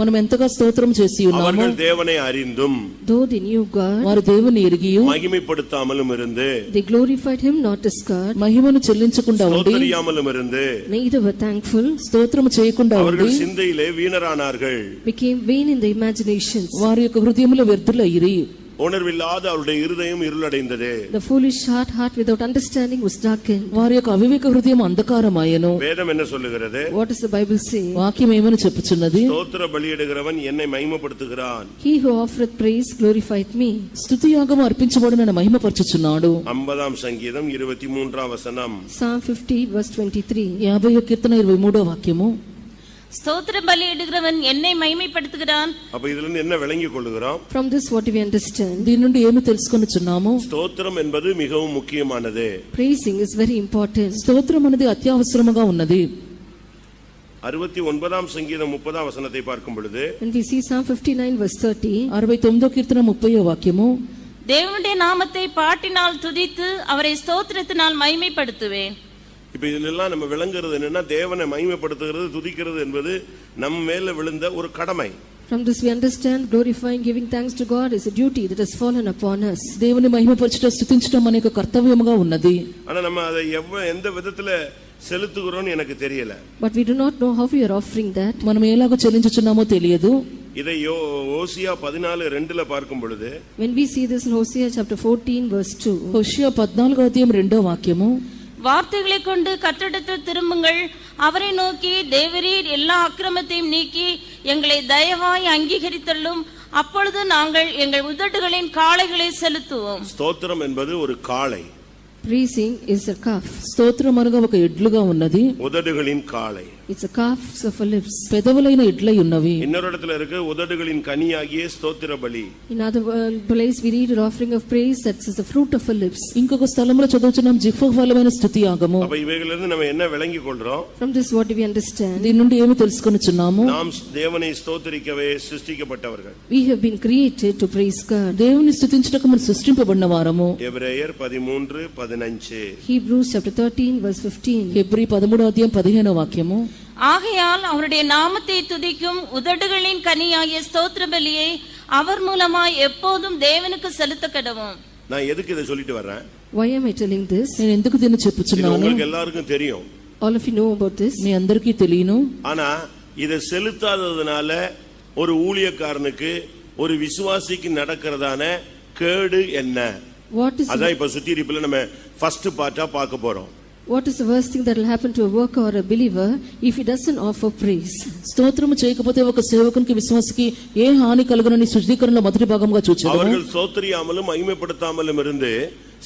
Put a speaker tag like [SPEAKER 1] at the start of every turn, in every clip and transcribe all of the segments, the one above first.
[SPEAKER 1] మనం ఎంతగా స్తోత్రం చేసి ఉన్నాము
[SPEAKER 2] அவர்கள் தேவனை அறிந்தும்
[SPEAKER 3] Though they knew God,
[SPEAKER 1] వారు దేవుని ఎరిగి
[SPEAKER 2] மகிமைப்படுத்தாமலும் இருந்து
[SPEAKER 3] they glorified him not as God,
[SPEAKER 1] మహిమను చెల్లించకుండా ఉండి
[SPEAKER 2] தோத்தரியாமலும் இருந்து
[SPEAKER 3] neither were thankful,
[SPEAKER 1] స్తోత్రము చేయకుండా ఉండి
[SPEAKER 2] அவர்கள் சிந்தையிலே வீணரானார்கள்
[SPEAKER 3] became vain in their imaginations.
[SPEAKER 1] వారి యొక్క హృదయములో వ్యర్థులయ్యి
[SPEAKER 2] உணர்வில்லாத அவருடைய இருதயம் இருளடைந்தது
[SPEAKER 3] The foolish heart, heart without understanding, was darkened.
[SPEAKER 1] వారి యొక్క అవివేక హృదయం అంధకారమాయను
[SPEAKER 2] வேதம் என்ன சொல்லுகிறது
[SPEAKER 3] What does the Bible say?
[SPEAKER 1] వాక్యం ఏమని చెప్పుచున్నది
[SPEAKER 2] ஸ்தோத்திர பலியிடுகிறவன் என்னை மகிமைப்படுத்துகிறான்
[SPEAKER 3] He who offereth praise glorified me.
[SPEAKER 1] స్థుతియాగము అర్పించబడు నన్ను మహిమపరచుచున్నాడు
[SPEAKER 2] ஐம்பதாம் சங்கீதம் இருபத்தி மூன்றாம் வசனம்
[SPEAKER 3] Psalm 50, verse 23.
[SPEAKER 1] యాభై కీర్తన ఇరవై మూడో వాక్యము
[SPEAKER 4] ஸ்தோத்திர பலியிடுகிறவன் என்னை மைமைப்படுத்துகிறான்
[SPEAKER 2] அப்ப இதுல இருந்து என்ன விளங்கிக் கொள்ளுகிறோம்
[SPEAKER 3] From this, what do we understand?
[SPEAKER 1] దీని నుండి ఏమి తెలుసుకొనుచున్నాము
[SPEAKER 2] ஸ்தோத்திரம் என்பது மிகவும் முக்கியமானது
[SPEAKER 3] Praising is very important.
[SPEAKER 1] స్తోత్రం అనేది అత్యవసరముగా ఉన్నది
[SPEAKER 2] அறுபத்தி ஒன்பதாம் சங்கீதம் முப்பதாம் வசனத்தை பார்க்கும் பொழுது
[SPEAKER 3] When we see Psalm 59, verse 30,
[SPEAKER 1] అరవై తొమ్మిదో కీర్తన ముప్పయో వాక్యము
[SPEAKER 4] தேவனுடைய நாமத்தை பாட்டினால் துதித்து அவரை ஸ்தோத்திரத்தினால் மைமைப்படுத்துவேன்
[SPEAKER 2] இப்ப இதுல எல்லாம் நம்ம விளங்குறது என்னன்னா தேவனை மகிமைப்படுத்துகிறது துதிக்கிறது என்பது நம் மேல விழுந்த ஒரு கடமை
[SPEAKER 3] from this we understand glorifying, giving thanks to God is a duty that has fallen upon us.
[SPEAKER 1] దేవుని మహిమపరచడం స్థుతించడం అనే ఒక కర్తవ్యముగా ఉన్నది
[SPEAKER 2] ஆனா நம்ம அதை எவ்வ எந்த விதத்துல செலுத்துகிறோம்னு எனக்கு தெரியல
[SPEAKER 3] But we do not know how we are offering that.
[SPEAKER 1] మనం ఎలాగో చెల్లించుచున్నామో తెలియదు
[SPEAKER 2] இதை யோ ஓசியா பதினாலு ரெண்டுல பார்க்கும் பொழுது
[SPEAKER 3] When we see this in Hosea chapter 14, verse 2,
[SPEAKER 1] Hosea పద్నాలుగో అధ్యాయం రెండో వాక్యము
[SPEAKER 4] வார்த்தைகளை கொண்டு கற்றிடத்தில் திரும்புங்கள் அவரை நோக்கி தேவரீர் எல்லா அக்கிரமத்தையும் நீக்கி எங்களை தயவாய் அங்கீகரித்தள்ளும் அப்பொழுது நாங்கள் எங்கள் உதடுகளின் காளைகளை செலுத்துவோம்
[SPEAKER 2] ஸ்தோத்திரம் என்பது ஒரு காளை
[SPEAKER 3] praising is a calf.
[SPEAKER 1] స్తోత్రం అనగా ఒక ఎడ్లుగా ఉన్నది
[SPEAKER 2] உதடுகளின் காளை
[SPEAKER 3] It's a calf of our lips.
[SPEAKER 1] పెదవులైన ఎడ్లై ఉన్నవి
[SPEAKER 2] இன்னொரு இடத்துல இருக்கு உதடுகளின் கனியாகிய ஸ்தோத்திர பலி
[SPEAKER 3] In other wo- place, we read an offering of praise that is the fruit of our lips.
[SPEAKER 1] ఇంకొక స్థలంలో చదువుచున్నాం జిహ్వఫలమైన స్థుతి ఆగము
[SPEAKER 2] அப்ப இவைகளிலிருந்து நம்ம என்ன விளங்கி கொள்றோம்
[SPEAKER 3] From this, what do we understand?
[SPEAKER 1] దీని నుండి ఏమి తెలుసుకొనుచున్నాము
[SPEAKER 2] நாம் தேவனை ஸ்தோத்தரிக்கவே சிருஷ்டிக்கப்பட்டவர்கள்
[SPEAKER 3] We have been created to praise God.
[SPEAKER 1] దేవుని స్థుతించుటకు మనం సృష్టింపబడిన వారము
[SPEAKER 2] எபிரேயர் பதிமூன்று பதினஞ்சு
[SPEAKER 3] Hebrews chapter 13, verse 15.
[SPEAKER 1] హెబ్రి పదమూడో అధ్యాయం పదిహేనో వాక్యము
[SPEAKER 4] ஆகையால் அவருடைய நாமத்தை துதிக்கும் உதடுகளின் கனியாகிய ஸ்தோத்திர பலியை அவர் மூலமாய் எப்போதும் தேவனுக்கு செலுத்த கடவும்
[SPEAKER 2] நான் எதுக்கு இதை சொல்லிட்டு வர்றேன்
[SPEAKER 3] Why am I telling this?
[SPEAKER 1] నేను ఎందుకు దీన్ని
[SPEAKER 2] இது
[SPEAKER 1] చెప్పుచున్నాను
[SPEAKER 2] உங்களுக்கு எல்லாருக்கும் தெரியும்
[SPEAKER 3] All of you know about this.
[SPEAKER 1] మీ అందరికీ తెలియను
[SPEAKER 2] ஆனா இதை செலுத்தாததுனால ஒரு ஊழியக்காரனுக்கு ஒரு விசுவாசிக்கு நடக்கிறதான கேடு என்ன
[SPEAKER 3] What is,
[SPEAKER 2] அதான் இப்ப சுத்திருப்புல நம்ம ஃபர்ஸ்ட் பார்ட்டா பார்க்க போறோம்
[SPEAKER 3] what is the worst thing that will happen to a worker or a believer if he doesn't offer praise?
[SPEAKER 1] స్తోత్రము చేయకపోతే ఒక సేవకునికి విశ్వాసకి ఏ హాని కలుగునని శుద్ధీకరణలో మొదటి భాగంగా చూచారు
[SPEAKER 2] அவர்கள் சோத்தரியாமலும் மகிமைப்படுத்தாமலும் இருந்து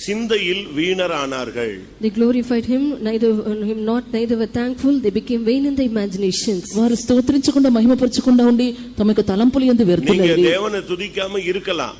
[SPEAKER 2] சிந்தையில் வீணரானார்கள்
[SPEAKER 3] They glorified him, neither him not, neither were thankful. They became vain in their imaginations.
[SPEAKER 1] వారు స్తోత్రించకుండా మహిమపరచకుండా ఉండి తమ యొక్క తలంపులు ఎందు
[SPEAKER 2] நீங்க
[SPEAKER 1] వ్యర్థులైరి
[SPEAKER 2] தேவனை துதிக்காம இருக்கலாம்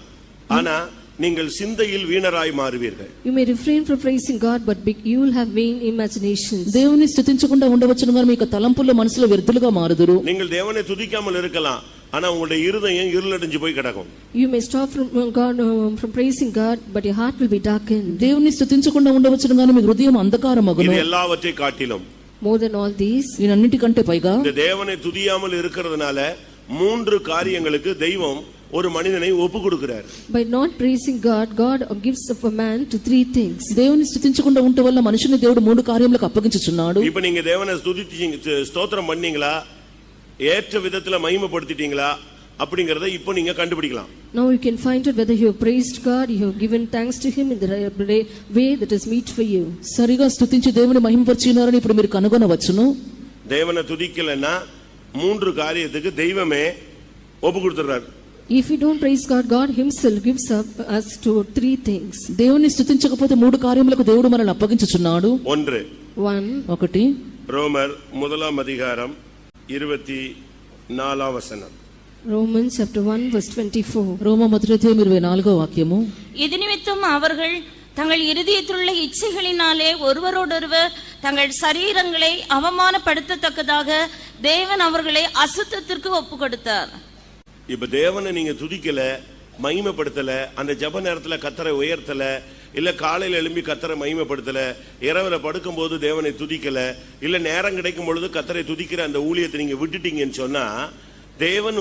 [SPEAKER 2] ஆனா நீங்கள் சிந்தையில் வீணராய் மாறுவீர்கள்
[SPEAKER 3] You may refrain from praising God, but be- you will have vain imaginations.
[SPEAKER 1] దేవుని స్థుతించకుండా ఉండవచ్చును గాని మీ యొక్క తలంపుల్లో మనసులో వ్యర్థులుగా మారుదురు
[SPEAKER 2] நீங்கள் தேவனை துதிக்காமல் இருக்கலாம் ஆனா உங்களுடைய இருதயம் இருளடைஞ்சு போய் கிடக்கும்
[SPEAKER 3] You may stop from uh, God uh, from praising God, but your heart will be darkened.
[SPEAKER 1] దేవుని స్థుతించకుండా ఉండవచ్చును గాని మీ హృదయం
[SPEAKER 2] இது
[SPEAKER 1] అంధకారమగును
[SPEAKER 2] எல்லாவற்றை కాட்டிலும்
[SPEAKER 3] More than all these,
[SPEAKER 1] ఈయనన్నిటికంటే పైగా
[SPEAKER 2] இந்த தேவனை துதியாமல் இருக்கிறதுனால மூன்று காரியங்களுக்கு தெய்வம் ஒரு மனிதனை ஒப்பு கொடுக்கிறார்
[SPEAKER 3] by not praising God, God gives up a man to three things.
[SPEAKER 1] దేవుని స్థుతించకుండా ఉండటం వల్ల మనిషిని దేవుడు మూడు కార్యములకు అప్పగించుచున్నాడు
[SPEAKER 2] இப்ப நீங்க தேவனை துதிச்சீங்க ஸ்த- ஸ்தோத்திரம் பண்ணீங்களா ஏற்ற விதத்துல மகிமைப்படுத்திட்டீங்களா அப்படிங்கறத இப்போ நீங்க கண்டுபிடிக்கலாம்
[SPEAKER 3] Now you can find out whether you have praised God, you have given thanks to Him in the right way that is meet for you.
[SPEAKER 1] సరిగా స్థుతించి దేవుని మహిమపరిచినారని ఇప్పుడు మీరు కనుగొనవచ్చును
[SPEAKER 2] தேவனை துதிக்கலைன்னா மூன்று காரியத்துக்கு தெய்வமே ஒப்பு கொடுத்துறாரு
[SPEAKER 3] If we don't praise God, God Himself gives up us to three things.
[SPEAKER 1] దేవుని స్థుతించకపోతే మూడు కార్యములకు దేవుడు మనల్ని అప్పగించుచున్నాడు
[SPEAKER 2] ஒன்று
[SPEAKER 3] One,
[SPEAKER 1] ఒకటి
[SPEAKER 2] ரோமர் முதலாம் அதிகாரம் இருபத்தி நாலாம் வசனம்
[SPEAKER 3] Romans chapter 1, verse 24.
[SPEAKER 1] రోమ మొదటిధ్యాయం ఇరవై నాలుగో వాక్యము
[SPEAKER 4] இது நிமித்தம் அவர்கள் தங்கள் இருதயத்திலுள்ள இச்சைகளினாலே ஒருவரோடொருவர் தங்கள் சரீரங்களை அவமானப்படுத்தத்தக்கதாக தேவன் அவர்களை அசுத்தத்திற்கு ஒப்பு கொடுத்தார்
[SPEAKER 2] இப்ப தேவனை நீங்க துதிக்கல மகிமைப்படுத்தல அந்த ஜப நேரத்துல கத்தரை உயர்த்தல இல்ல காலையில எழும்பி கத்தரை மகிமைப்படுத்தல இரவுல படுக்கும்போது தேவனை துதிக்கல இல்ல நேரம் கிடைக்கும் பொழுது கத்தரை துதிக்கிற அந்த ஊழியத்தை நீங்க விட்டுட்டீங்கன்னு சொன்னா தேவன்